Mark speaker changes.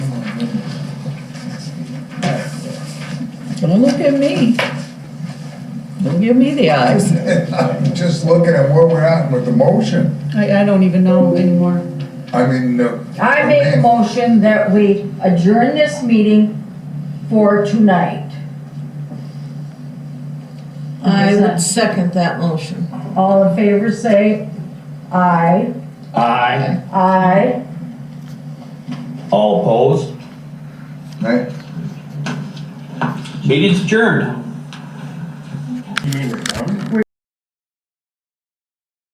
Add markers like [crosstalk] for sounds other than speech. Speaker 1: Don't look at me. Don't give me the
Speaker 2: [laughs]
Speaker 1: eyes.
Speaker 2: I'm just looking at where we're at with the motion.
Speaker 1: I, I don't even know anymore.
Speaker 2: I mean, uh,
Speaker 3: I make a motion that we adjourn this meeting for tonight.
Speaker 4: I would second that motion.
Speaker 3: All in favor, say aye.
Speaker 5: Aye.
Speaker 3: Aye.
Speaker 5: All opposed?
Speaker 2: I-
Speaker 5: Meeting's adjourned.